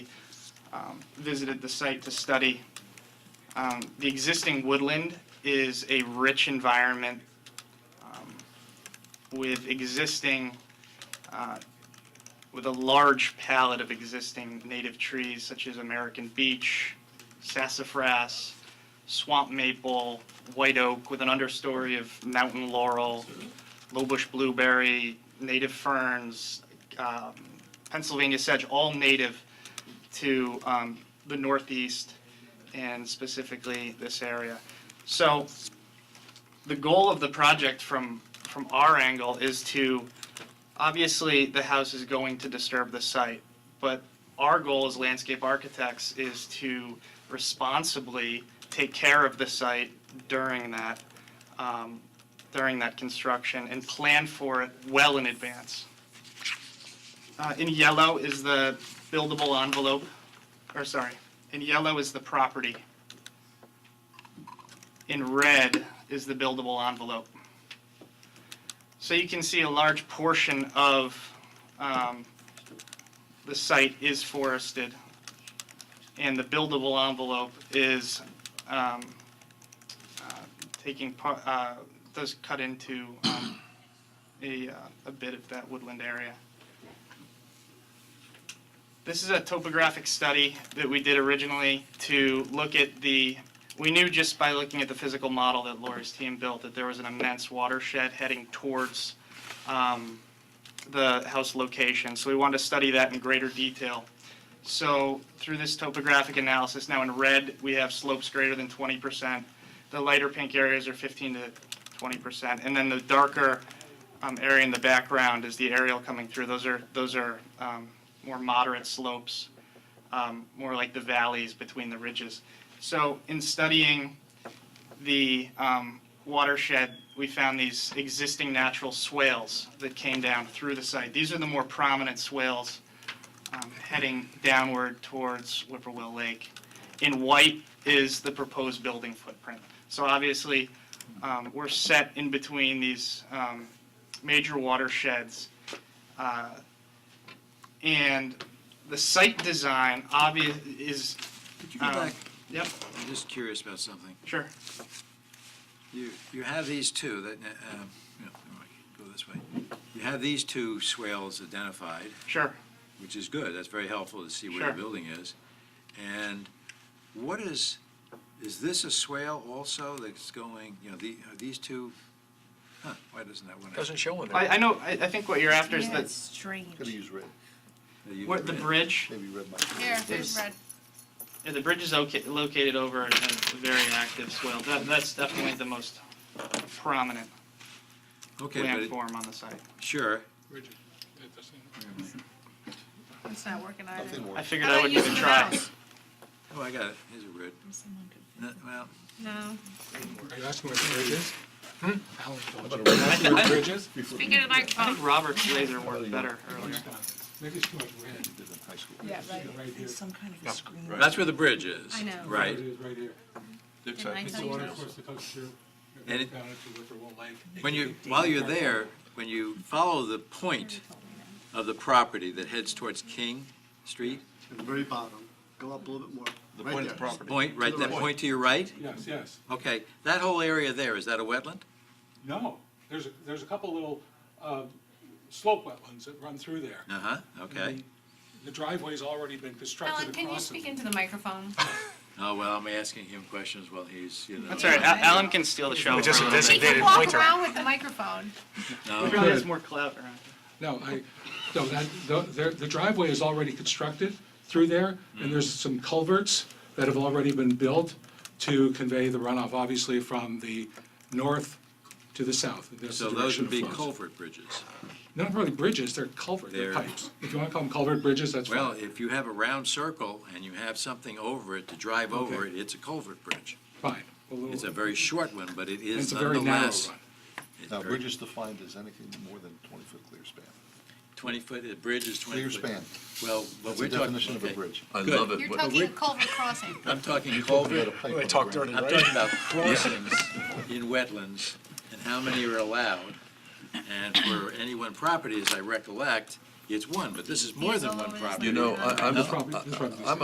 um, visited the site to study. Um, The existing woodland is a rich environment um, with existing, uh, with a large palette of existing native trees such as American beech, sassafras, swamp maple, white oak with an understory of mountain laurel, low bush blueberry, native ferns, um, Pennsylvania sedge, all native to um, the northeast and specifically this area. So the goal of the project from, from our angle is to, obviously, the house is going to disturb the site, but our goal as landscape architects is to responsibly take care of the site during that, um, during that construction and plan for it well in advance. Uh, In yellow is the buildable envelope, or sorry, in yellow is the property. In red is the buildable envelope. So you can see a large portion of um, the site is forested, and the buildable envelope is um, uh, taking, par- uh, does cut into um, a uh, a bit of that woodland area. This is a topographic study that we did originally to look at the, we knew just by looking at the physical model that Lori's team built that there was an immense watershed heading towards um, the house location. So we wanted to study that in greater detail. So through this topographic analysis, now in red, we have slopes greater than 20%. The lighter pink areas are 15 to 20%. And then the darker um, area in the background is the aerial coming through. Those are, those are um, more moderate slopes, um, more like the valleys between the ridges. So in studying the um, watershed, we found these existing natural swales that came down through the site. These are the more prominent swales um, heading downward towards Whippoorwill Lake. In white is the proposed building footprint. So obviously, um, we're set in between these um, major watersheds. uh, And the site design obvious is, Could you go um, back? yep, I'm just curious about something. sure. You, you have these two that, uh, um, no, never mind, go this way. You have these two swales identified, Sure. which is good. That's very helpful to see where Sure. the building is. And what is, is this a swale also that's going, you know, the, are these two? Huh, why doesn't that one? Doesn't show in there. I, I know, I, I think what you're after is Yeah, that, it's strange. Gotta use red, that you what, the read? bridge? maybe red might. be- Here, There's- there's red. Yeah, the bridge is oca- located over a a very active swale. That, that's definitely the most prominent Okay, but, it- landform on the site. sure. Richard, it doesn't- It's not working either. Nothing I works. figured How I about wouldn't using even the try. mouse? Oh, I got it. Here's a red. No, Well, No. Are you asking where the bridge is? Hmm? Alan told you. How Where the bridge is? Before Speak into the I microphone. think Robert's laser worked better earlier. Maybe it's towards red, we did in high school. Yeah, right. right here. Some kind of a screen. that's where the bridge is. I know. Right. It is right here. Can I It's tell the you? water course that comes through. It And goes it- down into Whippoorwill Lake. When you, while you're there, when you follow the point of the property that heads towards King Street, at the very bottom, go up a little bit more. The right point of there. the property. point, right, that point to your right? Yes, yes. Okay, that whole area there, is that a wetland? No, there's, a- there's a couple little uh, slope wetlands that run through there. Uh-huh, okay. And The driveway's already been constructed Alan, can you across speak it. into the microphone? Oh, well, I'm asking him questions while he's, you know. That's all right, Al- Alan can steal the show for a Just a little bit. She can designated walk pointer. around with the microphone. He No, probably has more clout around. No, I, no, that, the- there- the driveway is already constructed through there, and there's some culverts that have already been built to convey the runoff, obviously, from the north to the south. That's the So those direction would be of flows. culvert bridges. They're Not really bridges, they're culvert, they're They're- pipes. If you want to call them culvert bridges, that's Well, fine. if you have a round circle and you have something over it to drive over it, it's a culvert bridge. Fine. little- It's a very short one, but it is It's a very narrow nonetheless. run. it's Now, very- bridge is defined as anything more than twenty-foot clear span. 20 foot, the bridge is 20 Clear foot. span. Well, what That's the we're talking. definition of a okay. bridge. I Good. love it. You're but- talking a culvert crossing. I'm talking We got a culvert, pipe on I the talked ground. during I'm it, talking about crossings in wetlands and how many are allowed. And for any one property, as I recollect, it's one, but this is more than one property. You know, I, I'm, This property- this property- I'm